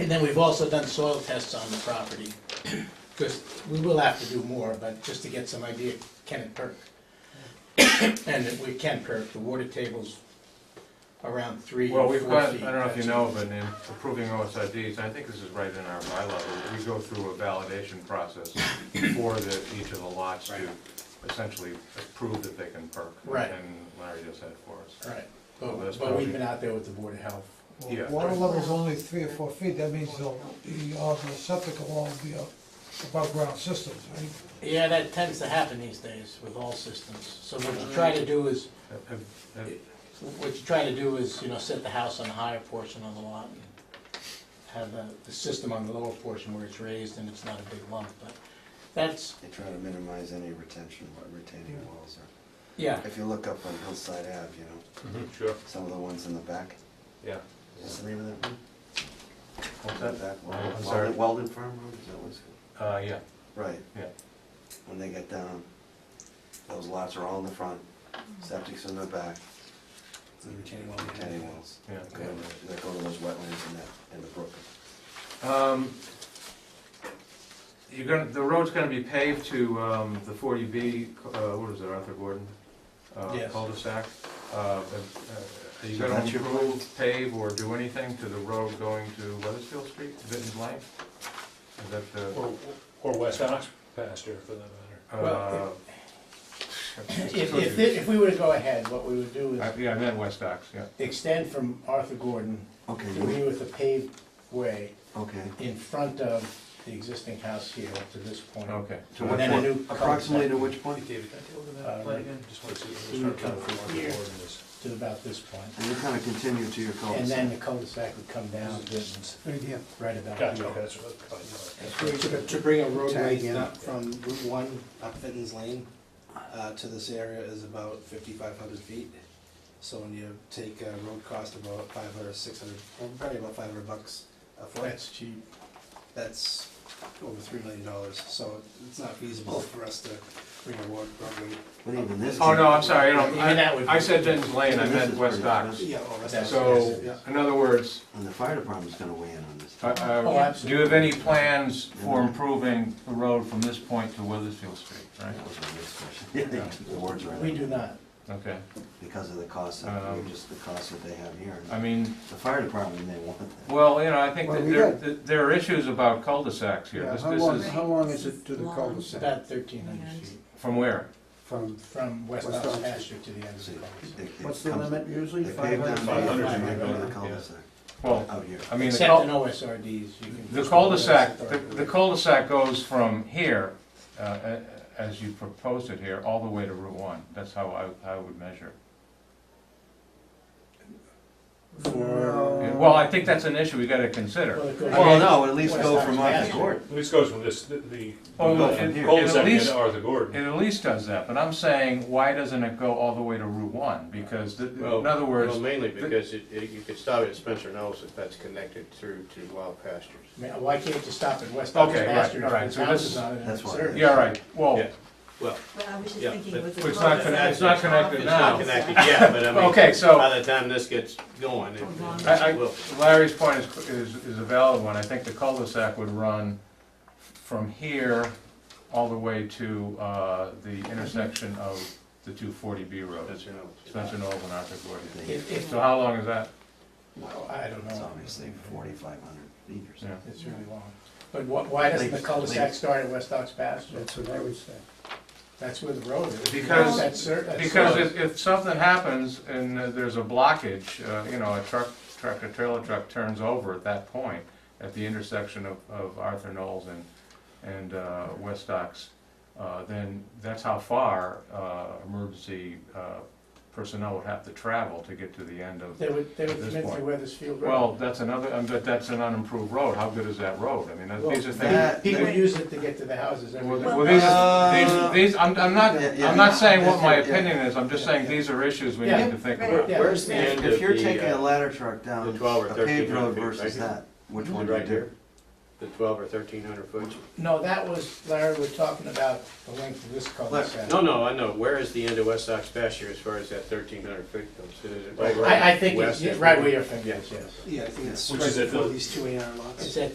then we've also done soil tests on the property, because we will have to do more, but just to get some idea, can it perk? And if we can perk, the water table's around three Well, or we've four got, I feet. don't know if you know, but in approving OSRDs, I think this is right in our bylaw, but we go through a validation process for the, each of the lots to essentially prove that they can perk. Right. And Larry does that for us. Right, Well, Oh, that's but, but we've probably- been out there with the Board of Health. Yeah. Water level's only three or four feet, that means they'll, the, uh, the septic will all be up, above ground systems, right? Yeah, that tends to happen these days with all systems, so what you try to do is, Have- have- have- what you try to do is, you know, set the house on the higher portion of the lot and have the, the system on the lower portion where it's raised and it's not a big lump, but that's, They try to minimize any retention, wa- retaining walls. or- yeah. If you look up on Hillside Ave, you know, Sure, some of the ones in the back, yeah. what's the name of that one? What's The that? back wall- I'm Walden- sorry. Walden Farm Road, is that what it's called? Uh, yeah, Right, yeah. when they get down, those lots are all in the front, septic's in the back, retaining walls. Yeah. That go to- that go to those wetlands and that, and the brook. Um, You're gonna, the road's gonna be paved to um, the 40B, uh, what is it, Arthur Gordon? uh, Yes. Cul-de-sac. Uh, uh, Are you So gonna that's your improve, pave, or do anything to the road going to Weathersfield Street, Vinton's Lane? Is that the, Or, or West Ox pasture for that matter. uh? Well, If, if, thi- if we were to go ahead, what we would do I- is Yeah, I meant West Ox, yeah. extend from Arthur Gordon to Mm-hmm. Okay, here with a paved way okay. in front of the existing house here up to this point. Okay. To And what then a new point, approximately to cul-de-sac. which point? David, can I take a look that Uh, plan again? Just want to see. you I'm would just trying come to find from the here. ordinance. To about this point. And you kind of continue to your Oh. cul-de-sac. And then the cul-de-sac would come down this- Right here. right about Gotcha, here. okay, that's what I thought you To- To to bring a roadway up from Route One, up Fenton's Lane, uh, to this area is about fifty-five hundred feet. So when you take a road cost of about five hundred, six hundred, probably about five hundred bucks a foot, That's cheap. that's over three million dollars. So it's not feasible for us to bring a road, roadway. But even this. Oh, no, I'm sorry, I Even don't- that would I I be- said Vinton's Lane, I This meant is West pretty Ox. expensive. Yeah, or rest. So, Yeah. in other words, And the fire department's gonna weigh in on this. Uh, Oh, uh, Do absolutely. you have any plans for improving the road from this point to Weathersfield Street, right? That was my next question. The words right. We do not. Okay, Because of the cost, of Um, just the cost that they have here. I mean, The fire department, they want that. well, you know, I think Well, that we there, got- that there are issues about cul-de-sacs here. Yeah, This how this long, is, how long is it to the cul-de-sac About thirteen hundred feet from where? from, from West West Ox Ox. pasture to the end of the See, cul-de-sac. they- it what's the comes- limit usually? They pave down 500? to 500, the yeah. cul-de-sac Well, out here. I mean, the Except in cul- OSRDs, you can. the cul-de-sac, the the cul-de-sac goes from here, uh, a- as you proposed it here, all the way to Route 1. That's how I, I would measure. No. it. Well, I think that's an issue we gotta consider. it goes- Well, no, at least West go Ox from off the pasture. court. This goes from this, the- the Oh, Go it- from it- here. it at cul-de-sac least and Arthur Gordon. It at least does that, but I'm saying, why doesn't it go all the way to Route One? Because, the- in other Well, words, mainly because it, it- you could stop at Spencer Knowles if that's connected through to Wild Pastures. I mean, Why can't you stop at West Ox Okay, right, pasture all right, if so the this house is- is on it? and that's it's why. there? yeah, all right, well, Yeah. Well, But I was just Yeah, thinking but- with the. It's not connected- it's not connected it's now. not connected yet, but I mean. Okay, so- By the time this gets going, it it I- I- will. Larry's point is, is is a valid one. I think the cul-de-sac would run from here all the way to uh, the intersection of the two forty B roads, Spencer Knowles. Spencer Knowles and Arthur Gordon. They- If, if, So how long is that? well, I don't It's know, obviously forty-five hundred feet or Yeah. something. it's really long. But wh- why doesn't the Please, cul-de-sac please. start at West Ox pasture? That's what I would say. That's where the road is. Because- That's cer- that's Because road. if, if something happens and uh, there's a blockage, uh, you know, a truck, tractor trailer truck turns over at that point, at the intersection of, of Arthur Knowles and, and, uh, West Ox, uh, then that's how far, uh, emergency, uh, personnel would have to travel to get to the end of. They would, they would At this come in point. through Weathersfield Road. Well, that's another, um, but that's an unimproved road. How good is that road? I mean, that- these are things. that- Well, People use it to get to the houses every Well, day. th- well, these Uh, are, these, these, I'm, I'm not, Yeah, yeah. I'm not saying what my Yeah, yeah. opinion is. I'm just saying these are issues we Yeah. need to think Right. about. Yeah. Where's the end If of you're the, taking a uh, ladder truck down the 12 or a paved 13 road feet, versus right? that, which one do you right do? here? the twelve or thirteen hundred foot? No, that was, Larry, we're talking about the length of this cul-de-sac. No, no, I know, where is the end of West Sox pasture as far as that thirteen hundred foot goes? Is it right where- I, I think west it's of- right where your finger is, yes. Yeah, I think it's Which is right at the- before these two A and R lots. It's at